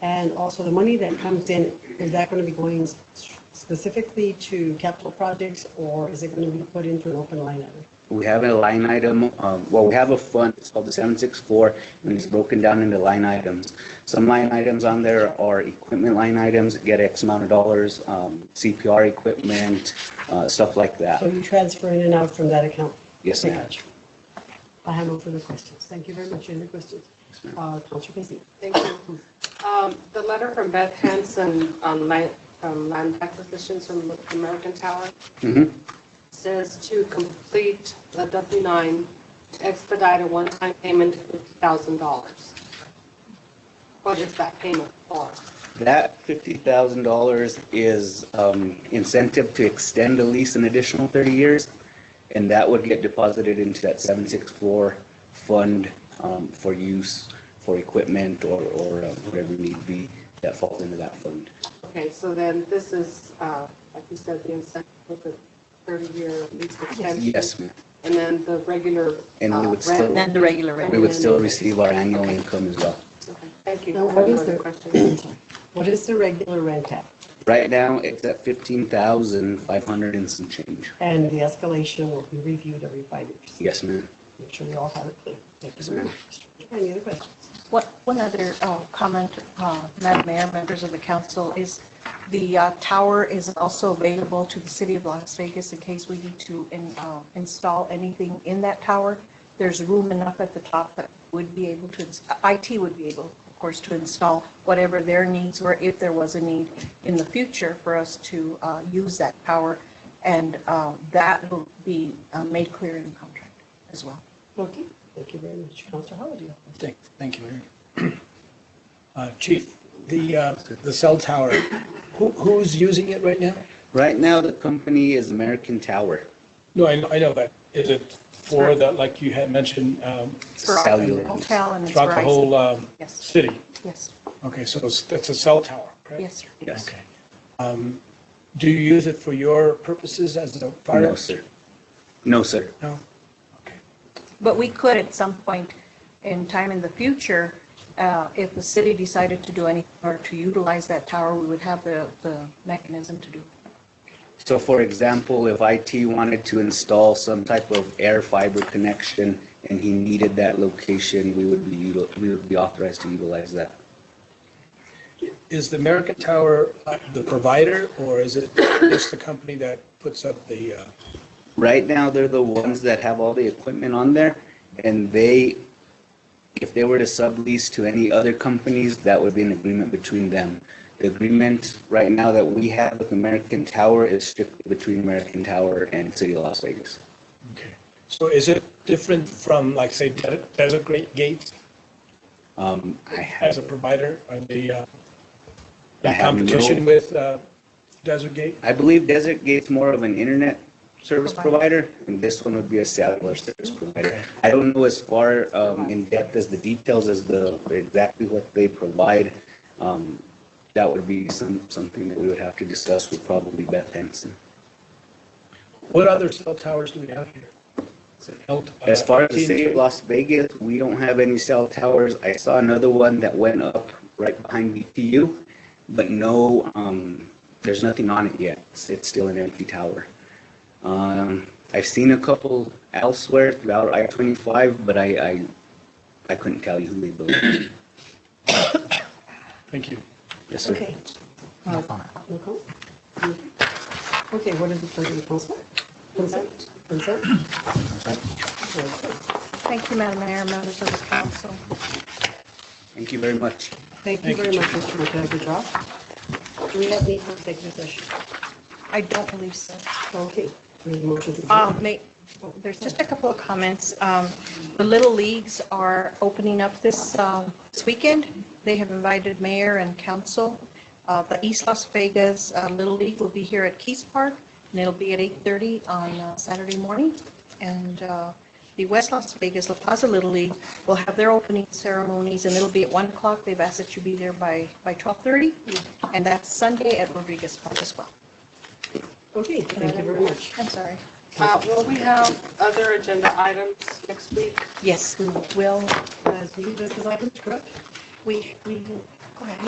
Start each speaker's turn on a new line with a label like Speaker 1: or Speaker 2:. Speaker 1: And also the money that comes in, is that going to be going specifically to capital projects or is it going to be put into an open line item?
Speaker 2: We have a line item, um, well, we have a fund, it's called the 764, and it's broken down into line items. Some line items on there are equipment line items, get X amount of dollars, um, CPR equipment, uh, stuff like
Speaker 1: So
Speaker 2: that.
Speaker 1: you transfer in and out from that account?
Speaker 2: Yes,
Speaker 1: Pretty
Speaker 2: ma'am.
Speaker 1: much. I have no further questions. Thank you very much. Any questions?
Speaker 2: ma'am.
Speaker 1: Uh, Counselor Casey?
Speaker 3: Thank you. Um, The letter from Beth Hanson on land um, land acquisitions from American Tower
Speaker 2: Mhm.
Speaker 3: says to complete the W-9, expedite a one-time payment of $50,000. What is that payment for?
Speaker 2: That $50,000 is um, incentive to extend the lease an additional 30 years, and that would get deposited into that 764 fund um, for use for equipment or or, uh, whatever need be that falls into that fund.
Speaker 3: Okay, so then this is, uh, like you said, the incentive for the 30-year lease extension.
Speaker 2: Yes, ma'am.
Speaker 3: And then the regular.
Speaker 2: And we
Speaker 3: uh,
Speaker 2: would still-
Speaker 3: rent.
Speaker 4: Then the regular
Speaker 2: We
Speaker 4: rate.
Speaker 2: would still receive our annual income as well.
Speaker 3: Okay, Thank you.
Speaker 1: Now, what is
Speaker 3: Further
Speaker 1: the-
Speaker 3: questions?
Speaker 1: What is the regular rent at?
Speaker 2: Right now, it's at 15,500 and some change.
Speaker 1: And the escalation will be reviewed every five years.
Speaker 2: Yes, ma'am.
Speaker 1: Make sure we all have it clear. Thank you very
Speaker 2: ma'am.
Speaker 1: much. Any other questions?
Speaker 4: What, one other uh, comment, uh, Madam Mayor, members of the council, is the uh, tower is also available to the city of Las Vegas in case we need to in- uh, install anything in that tower. There's room enough at the top that would be able to, ins- IT would be able, of course, to install whatever their needs were, if there was a need in the future for us to uh, use that power. And uh, that will be uh, made clear in the contract as well.
Speaker 1: Okay, thank you very much. Counselor Howard?
Speaker 5: Thank, thank you, Mayor. Uh, Chief, the, uh, the cell tower, who, who's using it right now?
Speaker 2: Right now, the company is American Tower
Speaker 5: No, I, know- I know, but is it for the, like you had mentioned, um,
Speaker 4: For our
Speaker 2: Cellular.
Speaker 4: Hotel and it's
Speaker 5: throughout the
Speaker 4: Verizon.
Speaker 5: whole, um,
Speaker 4: Yes.
Speaker 5: city?
Speaker 4: Yes,
Speaker 5: Okay, so it's, that's a cell tower, correct?
Speaker 4: yes, sir.
Speaker 2: Yes.
Speaker 5: Okay. Um, do you use it for your purposes as a fire?
Speaker 2: No, sir. No, sir.
Speaker 5: No? Okay.
Speaker 4: But we could at some point in time in the future, uh, if the city decided to do anything or to utilize that tower, we would have the, the mechanism to do. it.
Speaker 2: So for example, if IT wanted to install some type of air fiber connection and he needed that location, we would be, util- we would be authorized to utilize that.
Speaker 5: Is the American Tower uh, the provider, or is it just the company that puts up the, uh,
Speaker 2: Right now, they're the ones that have all the equipment on there, and they, if they were to sublease to any other companies, that would be an agreement between them. The agreement right now that we have with American Tower is strictly between American Tower and City of Las Vegas.
Speaker 5: Okay, so is it different from, like, say, De- Desert Great Gates
Speaker 2: Um, I
Speaker 5: as a
Speaker 2: have,
Speaker 5: provider, or the uh,
Speaker 2: I
Speaker 5: in
Speaker 2: have no-
Speaker 5: competition with uh, Desert Gate?
Speaker 2: I believe Desert Gate's more of an internet service provider, and this one would be a cellular service provider. I don't know as far um, in depth as the details as the, exactly what they provide. Um, That would be some, something that we would have to discuss with probably Beth Hanson.
Speaker 5: What other cell towers do we have here? Is it El-
Speaker 2: As
Speaker 5: uh,
Speaker 2: far as the
Speaker 5: TNT?
Speaker 2: city of Las Vegas, we don't have any cell towers. I saw another one that went up right behind BTU, but no, um, there's nothing on it yet. It's- It's still an empty tower. Um, I've seen a couple elsewhere throughout I-25, but I, I, I couldn't tell you who they built.
Speaker 5: Thank you.
Speaker 2: Yes, sir.
Speaker 1: Okay. No comment? Okay, what is the pleasure of the council? Consent? Consent? Okay.
Speaker 4: Thank you, Madam Mayor, members of the council.
Speaker 2: Thank you very much.
Speaker 1: Thank you very much, Mr. McCoy, good job. Do we have need for executive session?
Speaker 4: I don't believe so.
Speaker 1: Okay. We have a motion to
Speaker 4: Uh,
Speaker 1: adjourn.
Speaker 4: may- There's just a couple of comments. Um, The Little Leagues are opening up this um, this weekend. They have invited mayor and council. Uh, The East Las Vegas uh, Little League will be here at Keys Park, and it'll be at 8:30 on uh, Saturday morning. And uh, the West Las Vegas La Paz Little League will have their opening ceremonies, and it'll be at 1 o'clock. They've asked that you be there by by 12:30, and that's Sunday at Rodriguez Park as well.
Speaker 1: Okay, thank you very much.
Speaker 4: I'm sorry.
Speaker 3: Uh, Will we have other agenda items next week?
Speaker 4: Yes, we will.
Speaker 1: Uh, so you- This is item, correct?
Speaker 4: 嗯 We, we, go ahead.